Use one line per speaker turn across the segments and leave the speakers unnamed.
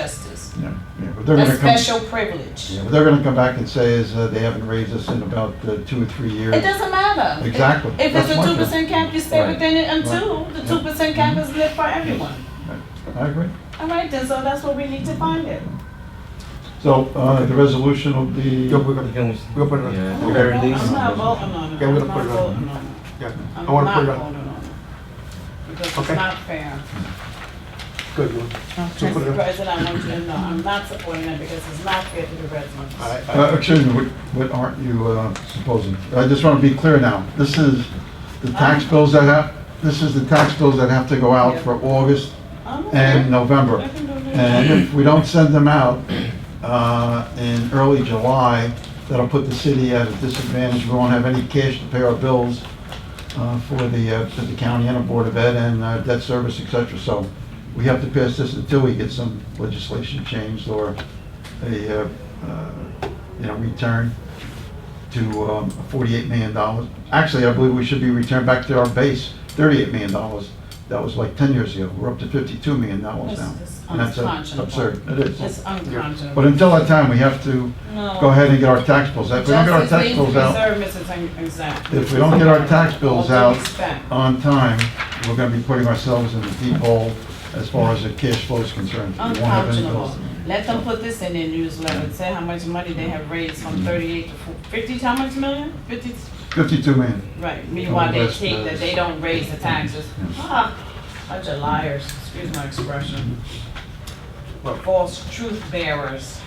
justice,
Yeah, yeah, but they're
a
gonna come,
special privilege.
yeah, what they're gonna come back and say is uh, they haven't raised us in about uh, two or three years.
It doesn't matter.
Exactly.
If
That's
it's a
my
two
point.
percent cap, you stay
Right.
within it
Right.
until the
Yeah. Mm-hmm.
two percent cap is lit for everyone.
I agree.
All right, then, so that's what we need to find it.
So, uh, the resolution will be,
Yo, we're gonna,
Can we,
we're gonna put it
Yeah.
on, the very
I'm
least.
not voting on it.
Yeah, we're
I'm
gonna put it
not
on.
voting on it.
Yeah,
I'm
I wanna put it
not
on,
voting on it. Because it's
Okay.
not fair.
good, you want- So put
Mr.
it on.
President, I want you to know, I'm not supporting it because it's not fair to the residents.
I-
uh,
I-
excuse me, what, what aren't you, uh, proposing? I just wanna be clear now. This is the tax
Um,
bills that have, this is the tax bills that have to go out for August
I'm okay.
and November.
I can do this.
And if we don't send them out uh, in early July, that'll put the city at a disadvantage. We won't have any cash to pay our bills uh, for the, uh, for the county and the Board of Ed and uh, debt service, et cetera. So we have to pass this until we get some legislation changed or a, uh, uh, you know, return to um, $48 million. Actually, I believe we should be returned back to our base, $38 million. That was like 10 years ago. We're up to $52 million
This
now.
is
And that's uh,
unconscionable.
absurd. It is.
It's unconscionable.
But until that time, we have to
No.
go ahead and get our tax bills out. If we don't get our
Justice
tax
needs to
bills out
preserve Mrs. Ang- Exact.
If we don't get our tax bills
All due
out-
respect.
on time, we're gonna be putting ourselves in the deep hole as far as the cash flow is concerned. We won't have any
Unconscionable.
bills.
Let them put this in their newsletter, and say how much money they have raised from
Mm-hmm.
thirty-eight to fo- fifty, how much million? Fifty,
52 million.
right, meanwhile they
Congress
think that
does.
they don't raise the taxes.
Yes.
Ah, Bunch of liars, excuse my expression.
Well-
False truth bearers.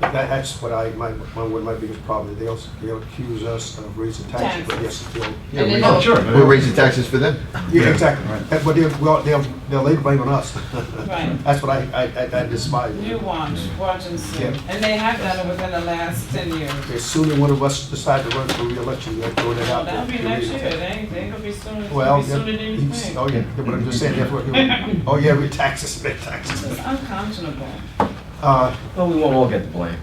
That, that's what I, my, my, one of my biggest problems, they'll, they'll accuse us of raising taxes, but yes, they'll.
And they
Oh,
don't-
sure.
we're raising taxes for them.
Yeah,
Yeah,
exactly,
right.
That- but they'll, well, they'll, they'll lay the blame on us.
Right.
That's what I, I, I- I despise.
You watch, watch and see,
Yeah.
and they have done it within the last ten years.
As soon as one of us decide to run for reelection, they'll throw that out. there.
That'll be next year, they ain't, they gonna be sooner, it's
Well,
gonna be sooner
yeah,
than you
he's-
think.
oh yeah, but I'm just saying, that's what, oh yeah, we taxes, we taxes.
It's unconscionable.
Uh,
Well, we won't all get the blame.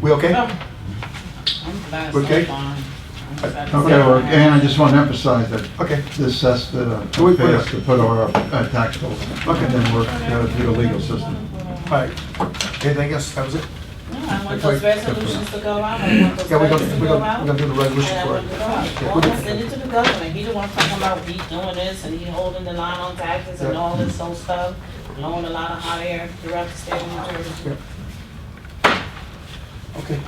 We okay?
No. I'm glad it's
Okay.
not mine. I'm glad it's not
Okay, well,
mine.
and I just want to emphasize that
Okay,
this has to uh,
Can we put
pass
it-
to put our uh, tax bills.
Okay.
And then work uh, through the legal system.
all right. Anything else? That was it?
No, I want those resolutions to go out, I want those
Yeah, we're gonna,
budgets to
we're
go
gonna,
out.
we're gonna do the resolution
And I
for
want to
it.
go out.
Yeah,
Well,
we're
I send
gonna-
it to the governor, he the one talking about he doing this and he holding the line on taxes and
Yeah.
all this old stuff, blowing a lot of hot air throughout the state of New Jersey.
Okay,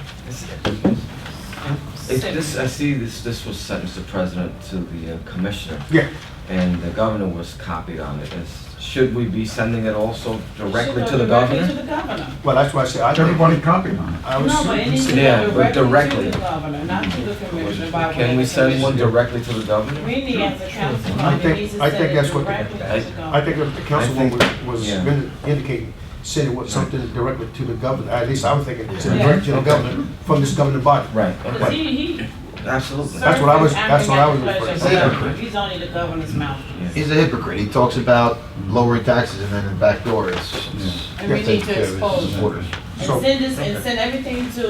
It's
Sick.
this, I see this, this was sent, Mr. President, to the uh, commissioner,
yeah,
and the governor was copied on it. Is- Should we be sending it also directly
Should go
to the
directly
governor?
To the governor.
well, that's why I said, I think,
Everybody copied on it.
I was.
No, but it needs to
Yeah,
go
but
directly to
directly.
the governor, not to the commissioner by way of the
Can we send one
commissioner.
directly to the governor?
We need as a council,
I
body,
think-
we need to
I
send
think
it
that's what-
directly to
I-
the
I
governor.
think if the councilman was, was
Yeah.
really indicating, said it was something directly to the governor, at least I was thinking, to the
Yeah.
director of the governor, from this governing body.
Right,
Because
okay,
he, he
absolutely.
Sir. what I was-
serves
that's what I
acting
was
at the
referring
to.
pleasure of- He's only the governor's mouth.
Yeah.
He's a hypocrite. He talks about lowering taxes and then in the back door it's. it's-
And we need to
it's-
expose him.
it's-
And
So-
send this, and send everything to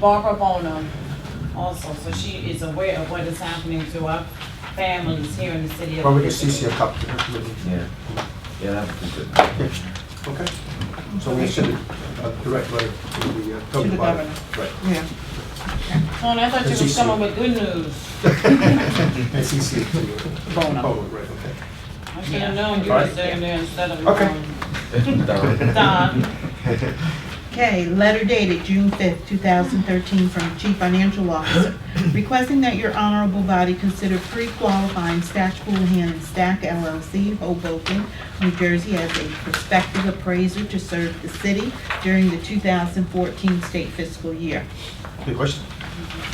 Barbara Bonham also, so she is aware of what is happening to our families here in the city of.
Well, we can
Elizabeth.
CC a copy to her committee.
Yeah, yeah, that would be good.
Okay, so we send it uh, direct letter to the uh, governing body. Right.
Tony, I thought you was
CC.
coming with good news.
And CC it to the public, right, okay.
I should have known you
All
was
right.
doing there instead of.
Okay.
um,
Don.
Don.
Okay, letter dated June 5th, 2013, from Chief Financial Officer, requesting that your honorable body consider pre-qualifying Stash Houlihan and Stack LLC Hoboken, New Jersey, as a prospective appraiser to serve the city during the 2014 state fiscal year.
Any question?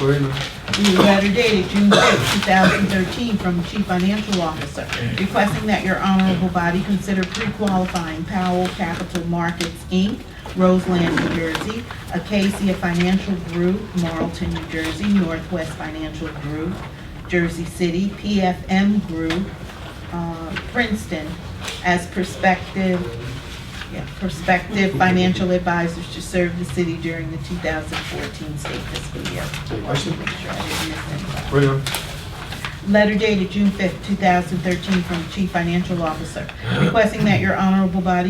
We're in, uh,
The letter dated June 6, 2013, from Chief Financial Officer, requesting that your honorable body consider pre-qualifying Powell Capital Markets, Inc., Roseland, New Jersey, Acacia Financial Group, Marlton, New Jersey, Northwest Financial Group, Jersey City, PFM Group, uh, Princeton, as prospective yeah, prospective financial advisors to serve the city during the 2014 state fiscal year.
Any questions?
Make sure I didn't miss anybody.
we're in.
Letter dated June 5th, 2013, from Chief Financial Officer, requesting that your honorable body